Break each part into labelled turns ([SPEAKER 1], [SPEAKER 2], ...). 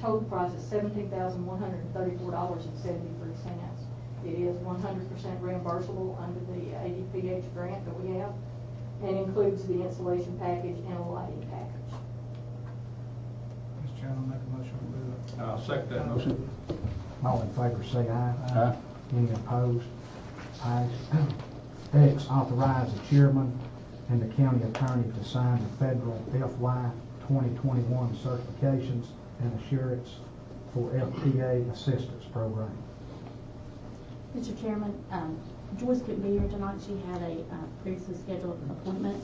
[SPEAKER 1] total price is seventeen thousand one hundred and thirty-four dollars and seventy-three cents. It is one hundred percent reimbursable under the ADPH grant that we have, and includes the insulation package and a lighting package.
[SPEAKER 2] Mr. Chairman, make a motion to approve it.
[SPEAKER 3] I'll second that motion.
[SPEAKER 4] All in favor, say aye.
[SPEAKER 3] Aye.
[SPEAKER 4] Any opposed? Ayes. X, authorize the chairman and the county attorney to sign the federal FY 2021 certifications and assurance for FPA assistance program.
[SPEAKER 5] Mr. Chairman, um, Joyce couldn't be here tonight, she had a uh, previously scheduled appointment,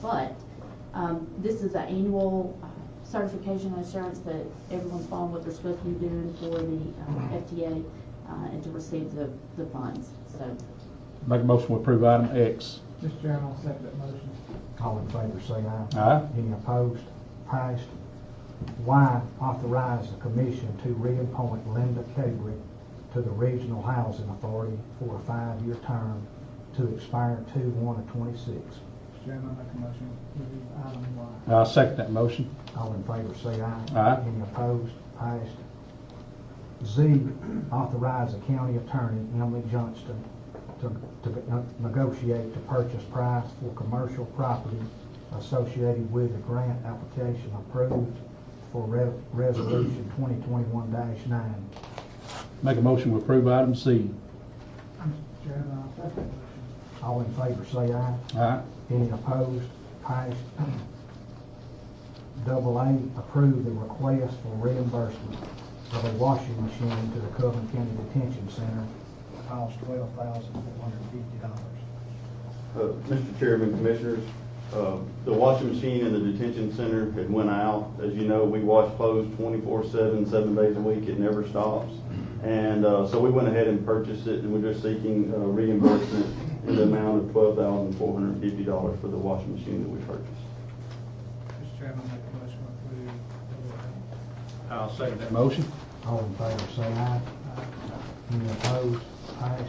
[SPEAKER 5] but um, this is an annual uh, certification assurance that everyone's following what they're supposed to be doing for the um, FTA uh, and to receive the the funds, so.
[SPEAKER 3] Make a motion to approve item X.
[SPEAKER 2] Mr. Chairman, I'll second that motion.
[SPEAKER 4] All in favor, say aye.
[SPEAKER 3] Aye.
[SPEAKER 4] Any opposed? Passed. Y, authorize the commission to reappoint Linda Kedrick to the Regional Housing Authority for a five-year term to expire 2/1 of '26.
[SPEAKER 2] Mr. Chairman, make a motion to approve item Y.
[SPEAKER 3] I'll second that motion.
[SPEAKER 4] All in favor, say aye.
[SPEAKER 3] Aye.
[SPEAKER 4] Any opposed? Passed. Z, authorize the county attorney, Emily Johnston, to, to negotiate the purchase price for commercial property associated with the grant application approved for Re- Resolution 2021-9.
[SPEAKER 3] Make a motion to approve item C.
[SPEAKER 2] Mr. Chairman, I'll second that motion.
[SPEAKER 4] All in favor, say aye.
[SPEAKER 3] Aye.
[SPEAKER 4] Any opposed? Passed. Double A, approve the request for reimbursement of a washing machine to the Coven County Detention Center. Cost twelve thousand four hundred and fifty dollars.
[SPEAKER 6] Uh, Mr. Chairman, Commissioners, uh, the washing machine in the detention center had went out. As you know, we wash clothes 24/7, seven days a week. It never stops. And uh, so we went ahead and purchased it, and we're just seeking uh, reimbursement in the amount of $12,450 for the washing machine that we purchased.
[SPEAKER 2] Mr. Chairman, make a motion to approve double A.
[SPEAKER 3] I'll second that motion.
[SPEAKER 4] All in favor, say aye. Any opposed? Passed.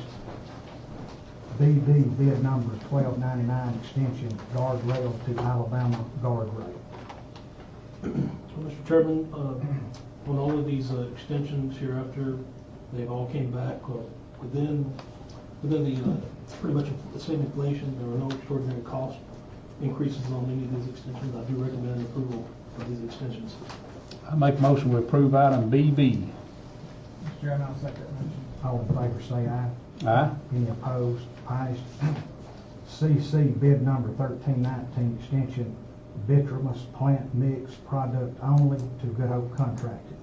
[SPEAKER 4] BB, bid number twelve ninety-nine, extension guardrail to Alabama guardrail.
[SPEAKER 7] Well, Mr. Chairman, uh, on all of these uh, extensions hereafter, they've all came back uh, within, within the, uh, pretty much the same inflation, there were no extraordinary cost increases on any of these extensions. I do recommend approval of these extensions.
[SPEAKER 3] I make a motion to approve item BB.
[SPEAKER 2] Mr. Chairman, I'll second that motion.
[SPEAKER 4] All in favor, say aye.
[SPEAKER 3] Aye.
[SPEAKER 4] Any opposed? Passed. CC bid number thirteen nineteen, extension vitreous plant mix product only to Good Hope Contracting.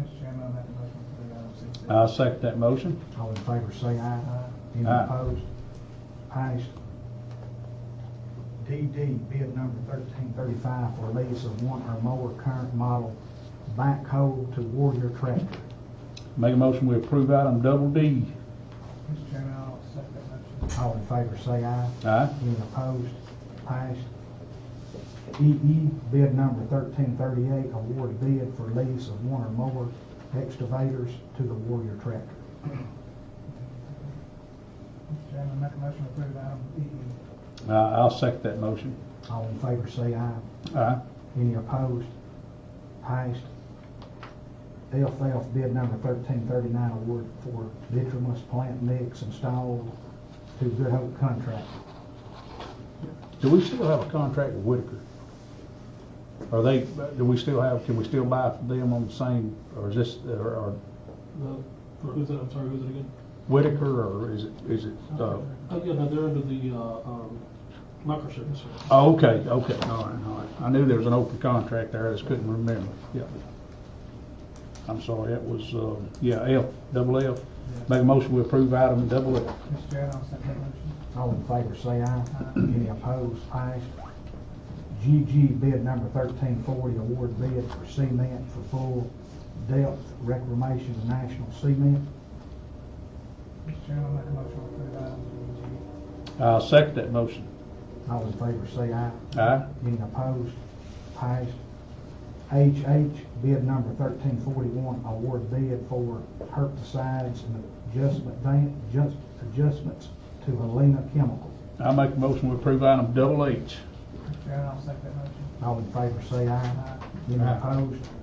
[SPEAKER 2] Mr. Chairman, I'll make a motion to approve item C.
[SPEAKER 3] I'll second that motion.
[SPEAKER 4] All in favor, say aye. Any
[SPEAKER 3] Aye.
[SPEAKER 4] opposed? Passed. DD bid number thirteen thirty-five for lease of one or more current model backhoe to Warrior Tractor.
[SPEAKER 3] Make a motion we approve item double D.
[SPEAKER 2] Mr. Chairman, I'll second that motion.
[SPEAKER 4] All in favor, say aye.
[SPEAKER 3] Aye.
[SPEAKER 4] Any opposed? Passed. EE, bid number thirteen thirty-eight, award bid for lease of one or more excavators to the Warrior Tractor.
[SPEAKER 2] Mr. Chairman, make a motion to approve item E.
[SPEAKER 3] Uh, I'll second that motion.
[SPEAKER 4] All in favor, say aye.
[SPEAKER 3] Aye.
[SPEAKER 4] Any opposed? Passed. LF, bid number thirteen thirty-nine, award for vitreous plant mix installed to Good Hope Contract.
[SPEAKER 3] Do we still have a contract with Whitaker? Are they, do we still have, can we still buy from them on the same, or is this, or or
[SPEAKER 7] The- For who's that, I'm sorry, who's it again?
[SPEAKER 3] Whitaker, or is it, is it, uh,
[SPEAKER 7] Oh, yeah, no, they're under the uh, um, microservice.
[SPEAKER 3] oh, okay, okay, all right, all right. I knew there was an open contract there, I just couldn't remember, yeah. I'm sorry, that was, uh, yeah, F, double F. Make a motion, we approve item double F.
[SPEAKER 2] Mr. Chairman, I'll second that motion.
[SPEAKER 4] All in favor, say aye. Any opposed, passed. GG bid number thirteen forty, award bid for cement for full depth reclamation of national cement.
[SPEAKER 2] Mr. Chairman, make a motion to approve item G.
[SPEAKER 3] I'll second that motion.
[SPEAKER 4] All in favor, say aye.
[SPEAKER 3] Aye.
[SPEAKER 4] Any opposed, passed. HH bid number thirteen forty-one, award bid for herbicides and adjustment, van- adjust- adjustments to Helena Chemical.
[SPEAKER 3] I make a motion, we approve item double H.
[SPEAKER 2] Mr. Chairman, I'll second that motion.
[SPEAKER 4] All in favor, say aye. Any
[SPEAKER 3] Aye.
[SPEAKER 4] opposed,